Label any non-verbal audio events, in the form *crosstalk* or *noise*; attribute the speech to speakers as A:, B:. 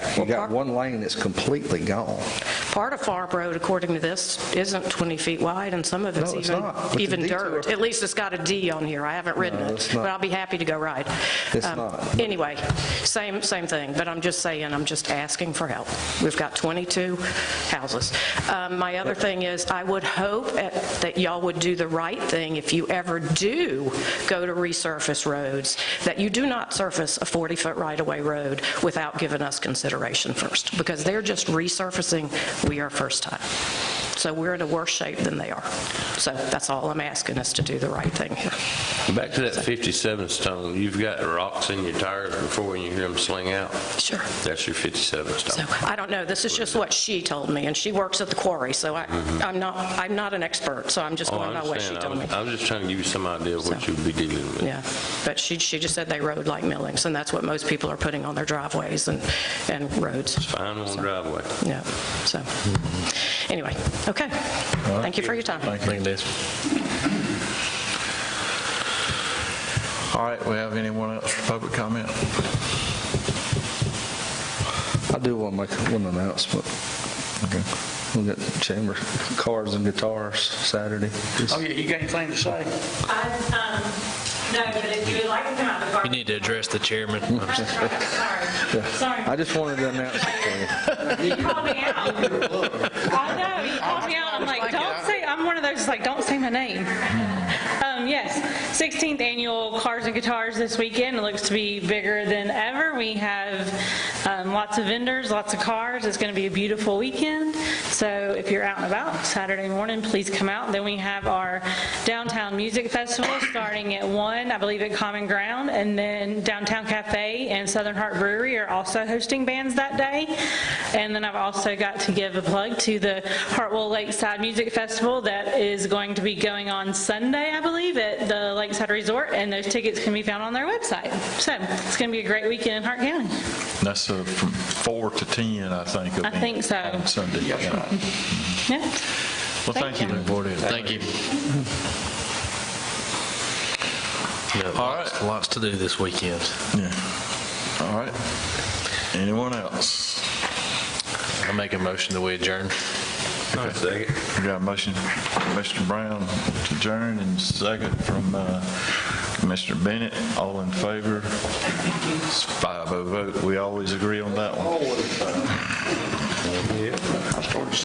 A: You got one lane that's completely gone.
B: Part of Farm Road, according to this, isn't 20 feet wide, and some of it's
A: No, it's
B: even,
A: not, but the
B: even dirt.
A: detour-
B: At least it's got a D on here, I haven't ridden
A: No,
B: it,
A: it's not.
B: but I'll be happy to go ride.
A: It's
B: Um,
A: not.
B: Anyway, same, same thing, but I'm just saying, I'm just asking for help. We've got 22 houses. Um, My other thing is, I would hope at- that y'all would do the right thing if you ever do go to resurface roads, that you do not surface a 40-foot right-of-way road without giving us consideration first, because they're just resurfacing, we are first time. So we're in a worse shape than they are. So that's all I'm asking, is to do the right thing here.
C: Back to that 57 stone, you've got rocks in your tires before you hear them sling out.
B: Sure.
C: That's your 57
B: So
C: stone.
B: I don't know, this is just what she told me, and she works at the quarry, so I, I'm not, I'm not an expert, so I'm just
C: Mm-hmm. Oh, I
B: going by what she
C: understand. I
B: told me.
C: was- I was just trying to give you some idea of what
B: So-
C: you'd be dealing with.
B: Yeah, but she, she just said they rode like millings, and that's what most people are putting on their driveways and, and roads.
C: Fine on driveway.
B: Yeah, so,
C: Mm-hmm.
B: anyway, okay. Thank you for your time.
D: Thank you, Liz. All right, we have anyone else for public comment?
A: I do want to make one announcement.
D: Okay.
A: We got chamber cars and guitars Saturday.
E: Oh, yeah, you got anything to say?
F: I, um, No, but if you would like to come out the
G: You
F: garden.
G: need to address the chairman.
F: That's right, Sorry,
A: I
F: sorry.
A: just wanted to announce it for you.
F: You called me out.
G: *laughs*
F: I know, you called me out. I'm like, don't say, I'm one of those, like, don't say my name. Um, Yes, 16th Annual Cars and Guitars this weekend. It looks to be bigger than ever. We have um, lots of vendors, lots of cars. It's going to be a beautiful weekend. So if you're out and about Saturday morning, please come out. Then we have our Downtown Music Festival starting at 1, I believe at Common Ground. And then Downtown Cafe and Southern Heart Brewery are also hosting bands that day. And then I've also got to give a plug to the Hartwell Lakeside Music Festival that is going to be going on Sunday, I believe, at the Lakeside Resort, and those tickets can be found on their website. So it's going to be a great weekend in Hart County.
D: That's uh, from 4 to 10, I think.
F: I think so.
D: On Sunday. yeah.
F: Yeah.
D: Well,
F: Thank
D: thank you.
F: you.
D: Looking forward to it.
G: Thank you. No,
D: All
G: lots-
D: right.
G: Lots to do this weekend.
D: Yeah. All right. Anyone else?
G: I make a motion that we adjourn.
C: Second.
D: We got a motion, Mr. Brown to adjourn, and second from uh, Mr. Bennett. All in favor? It's 5-0 vote. We always agree on that one.
E: I started